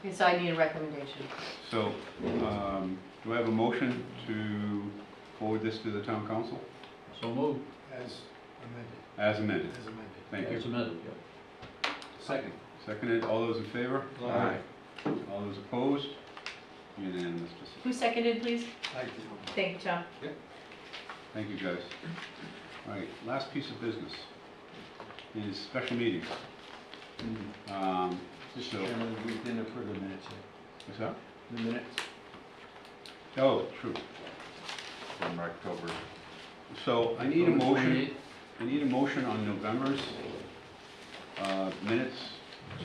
Okay, so I need a recommendation. So, um, do I have a motion to forward this to the town council So moved. As amended, as amended? as amended. Thank you. As amended, yeah. Second. Seconded, all those in favor? Aye. All those opposed? Unanimous decision. Who seconded, please? Thank you. Thank you, Tom. Thank you, guys. All right, last piece of business is special meetings. Um, Mr. So- Chairman, we didn't approve the minutes yet. what's that? The minutes? Oh, true. from October. So I need a motion, 28th. I need a motion on November's uh, minutes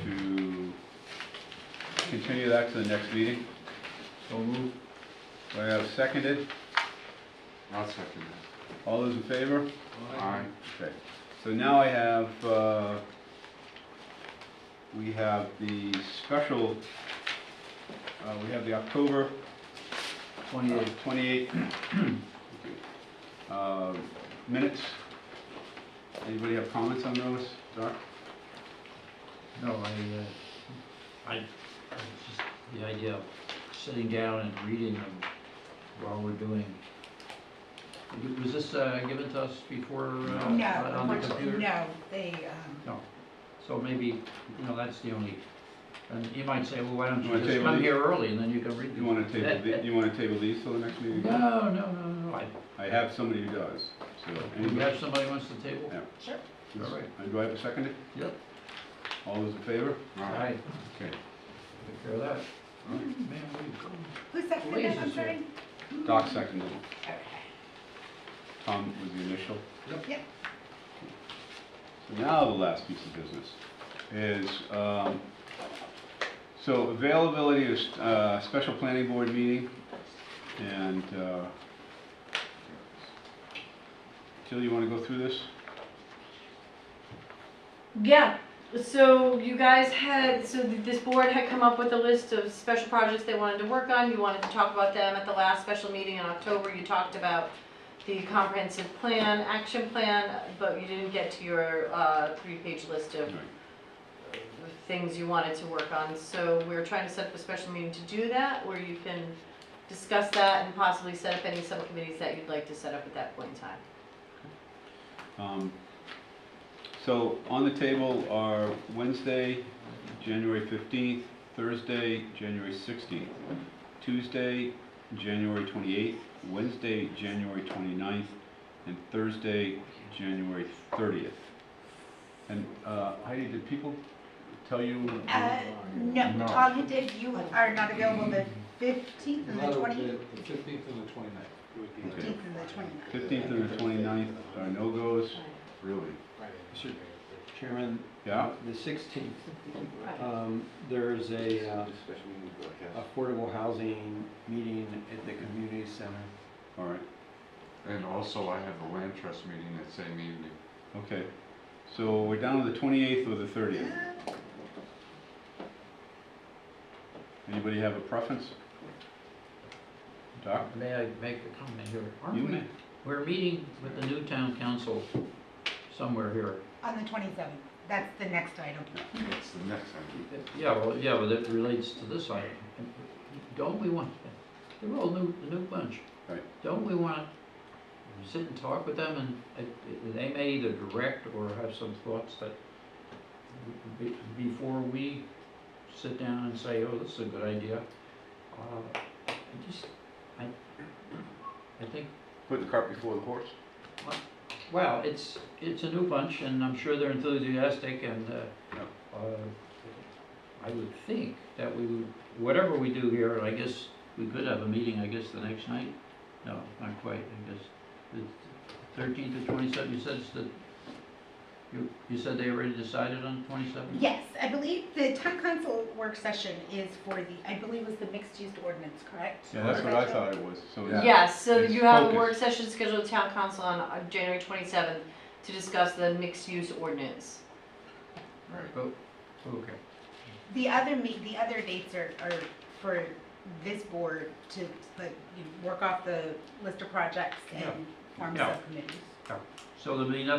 to continue that to the next meeting. So moved. Do I have seconded? I'll second that. All those in favor? Aye. Okay, so now I have, uh, we have the special, uh, we have the October uh, 28th. 28 uh, minutes. Anybody have comments on those, Doc? No, I, uh, I, I was just, the idea of sitting down and reading them while we're doing. Was this uh, given to us before, uh, No, on the computer? unfortunately, no, they, um, So maybe, you know, that's the only, and you might say, well, why don't You wanna you just table come these? here early and then you can read You them? want to table, the- you want to table these till the next meeting? No, no, no, no, I, I have somebody who does, so. we anybody- have somebody wants to table? Yeah. Sure. All right. And Do I have a second? Yep. All those in favor? All Aye. right, Okay. take care of that. All right. Man, we- who's that, for Louise that, I'm is here. sorry? Doc seconded. Okay. Tom was the initial. Yep. So now the last piece of business is, um, so availability of uh, special planning board meeting and, uh, Jill, you want to go through this? Yeah, so you guys had, so th- this board had come up with a list of special projects they wanted to work on. You wanted to talk about them at the last special meeting in October. You talked about the comprehensive plan, action plan, but you didn't get to your uh, three-page list of Right. things you wanted to work on. So we're trying to set up a special meeting to do that, where you can discuss that and possibly set up any subcommittees that you'd like to set up at that point in time. Um, So on the table are Wednesday, January 15th, Thursday, January 16th, Tuesday, January 28th, Wednesday, January 29th, and Thursday, January 30th. And uh, Heidi, did people tell you? Uh, no, No. Tom, you did, you are not available the fifteenth and the twenty, The fifteenth and the twenty-ninth. Okay. fifteenth and the twenty-ninth. 15th and the 29th are no-goes, Really? Mr. Chairman, yeah? the sixteenth, Right. um, there's a, uh, Especially when you go ahead. affordable housing meeting at the community center. All right, And also I have a land trust meeting that same evening. okay. So we're down to the 28th or the 30th. Anybody have a preference? Doc? May I make a comment here? You Aren't may. we, we're meeting with the new town council somewhere here. On the twenty-seventh, that's the next item. That's the next time. Yeah, well, yeah, but it relates to this item. Don't we want, they're all new, the new bunch. Right. Don't we want to sit and talk with them and uh, they may either direct or have some thoughts that be- before we sit down and say, oh, this is a good idea. uh, I just, I, I think Put the cart before the horse. Well, it's, it's a new bunch, and I'm sure they're enthusiastic, and Yeah. uh, uh, I would think that we would, whatever we do here, and I guess we could have a meeting, I guess, the next night? No, not quite, I guess. The 13th to 27th, you said it's the, you, you said they already decided on 27th? Yes, I believe the town council work session is for the, I believe it was the mixed-use ordinance, correct? Yeah, that's what I thought it was, so. it's- Yes, so It's you have a work focused. session scheduled with town council on uh, January twenty-seventh to discuss the mixed-use ordinance. Right. Oh, Okay. The other me, the other dates are, are for this board to, like, you know, work off the list of projects and form Yeah. subcommittees. So there'll be nothing